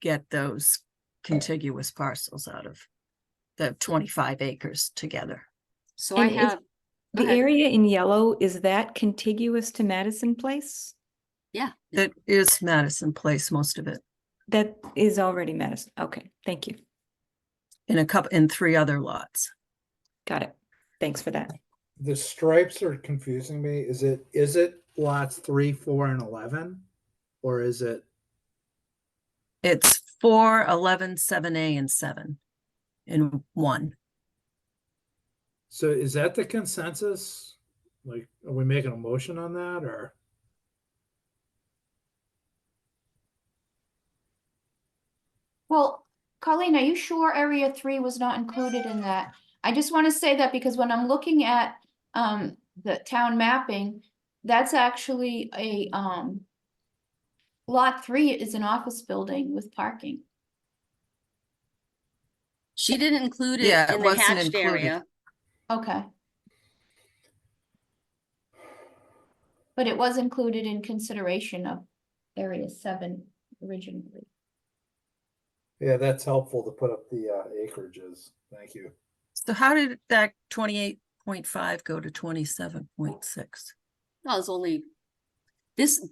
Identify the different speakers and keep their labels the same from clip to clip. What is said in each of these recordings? Speaker 1: get those contiguous parcels out of the twenty-five acres together.
Speaker 2: So I
Speaker 3: And is-
Speaker 2: have, go
Speaker 3: The
Speaker 2: ahead.
Speaker 3: area in yellow, is that contiguous to Madison Place?
Speaker 1: That is Madison Place, most of it,
Speaker 3: That is already Madison. Okay, thank you.
Speaker 1: in a couple, in three other lots.
Speaker 3: Got it. Thanks for that.
Speaker 4: The stripes are confusing me. Is it, is it lots three, four, and eleven? Or is it,
Speaker 1: It's four, eleven, seven A and seven in one.
Speaker 4: so is that the consensus? Like, are we making a motion on that or?
Speaker 5: Well, Colleen, are you sure area three was not included in that? I just want to say that because when I'm looking at um the town mapping, that's actually a um. Lot three is an office building with parking.
Speaker 2: she didn't include it
Speaker 1: Yeah, it
Speaker 2: in the
Speaker 1: wasn't
Speaker 2: hatched
Speaker 1: included.
Speaker 2: area.
Speaker 5: Okay. But it was included in consideration of area seven originally.
Speaker 4: Yeah, that's helpful to put up the uh, acreages. Thank you.
Speaker 1: So how did that twenty-eight point five go to twenty-seven point six?
Speaker 2: No, it's only this.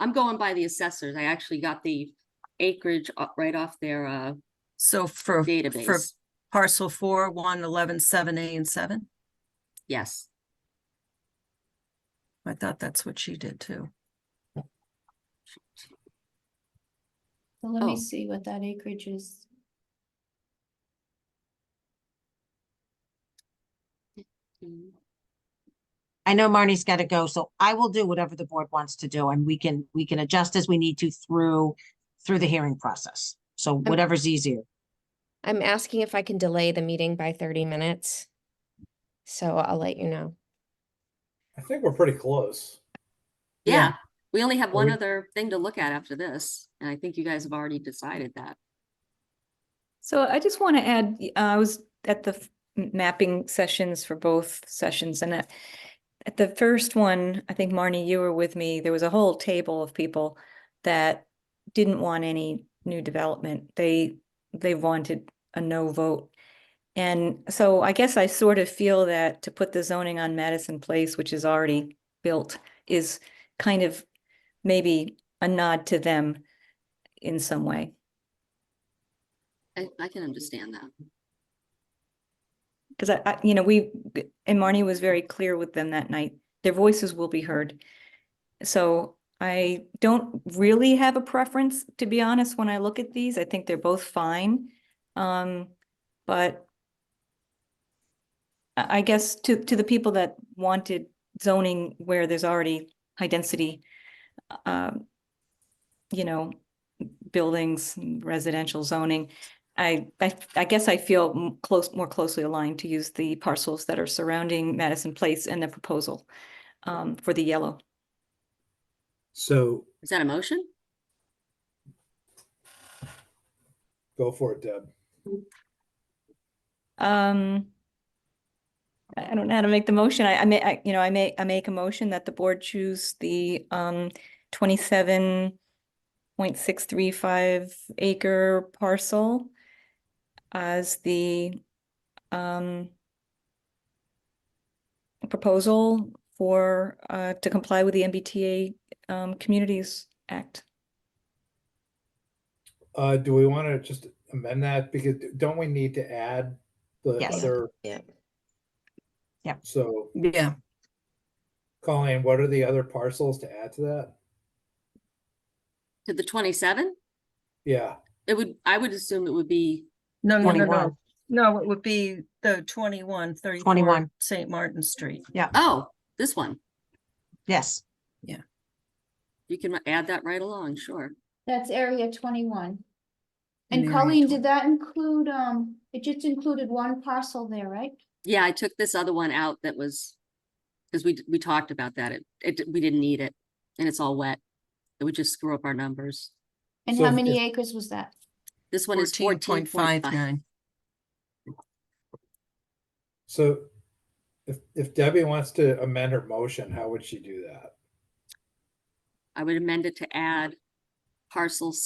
Speaker 2: I'm going by the assessors. I actually got the acreage o- right off their uh
Speaker 1: So for, for
Speaker 2: database.
Speaker 1: parcel four, one, eleven, seven A and seven?
Speaker 2: Yes,
Speaker 1: I thought that's what she did too.
Speaker 5: So let me
Speaker 2: Oh.
Speaker 5: see what that acreage is.
Speaker 2: Mm,
Speaker 6: I know Marnie's got to go, so I will do whatever the board wants to do and we can, we can adjust as we need to through, through the hearing process. So whatever's easier.
Speaker 7: I'm asking if I can delay the meeting by thirty minutes. So I'll let you know.
Speaker 4: I think we're pretty close.
Speaker 1: Yeah.
Speaker 2: yeah. We only have one
Speaker 4: we-
Speaker 2: other thing to look at after this, and I think you guys have already decided that.
Speaker 3: So I just want to add, y- uh, I was at the f- m- mapping sessions for both sessions and at, at the first one, I think Marnie, you were with me, there was a whole table of people that didn't want any new development. They, they wanted a no vote. And so I guess I sort of feel that to put the zoning on Madison Place, which is already built, is kind of maybe a nod to them in some way.
Speaker 2: I I can understand that.
Speaker 3: Because I, I, you know, we, b- and Marnie was very clear with them that night, their voices will be heard. So I don't really have a preference, to be honest, when I look at these, I think they're both fine. Um, but I, I guess to, to the people that wanted zoning where there's already high density, um, you know, buildings, residential zoning, I, I, I guess I feel m- close, more closely aligned to use the parcels that are surrounding Madison Place and the proposal um, for the yellow.
Speaker 4: So
Speaker 2: Is that a motion?
Speaker 4: go for it, Deb.
Speaker 3: Um, I I don't know how to make the motion. I, I may, I, you know, I may, I make a motion that the board choose the um twenty-seven point six three five acre parcel as the um proposal for uh to comply with the MBTA um Communities Act.
Speaker 4: Uh, do we want to just amend that? Because don't we need to add the
Speaker 6: Yes.
Speaker 4: other?
Speaker 7: Yeah.
Speaker 6: Yep.
Speaker 4: So
Speaker 1: Yeah,
Speaker 4: Colleen, what are the other parcels to add to that?
Speaker 2: To the twenty-seven?
Speaker 4: Yeah,
Speaker 2: It would, I would assume it would be,
Speaker 1: no, no, no, no.
Speaker 6: 21.
Speaker 1: No, it would be the twenty-one, thirty-four
Speaker 6: 21.
Speaker 1: St. Martin Street.
Speaker 2: oh, this one.
Speaker 6: Yes.
Speaker 2: You can add that right along, sure.
Speaker 5: That's area twenty-one.
Speaker 1: in
Speaker 5: And
Speaker 1: area
Speaker 5: Colleen,
Speaker 1: 20.
Speaker 5: did that include, um, it just included one parcel there, right?
Speaker 2: Yeah, I took this other one out that was, because we, d- we talked about that. It, it, d- we didn't need it and it's all wet. It would just screw up our numbers.
Speaker 5: And
Speaker 4: So
Speaker 5: how
Speaker 4: if-
Speaker 5: many
Speaker 4: if-
Speaker 5: acres was that?
Speaker 2: This one is
Speaker 1: Fourteen
Speaker 2: fourteen
Speaker 1: point five nine.
Speaker 4: so if, if Debbie wants to amend her motion, how would she do that?
Speaker 2: I would amend it to add parcel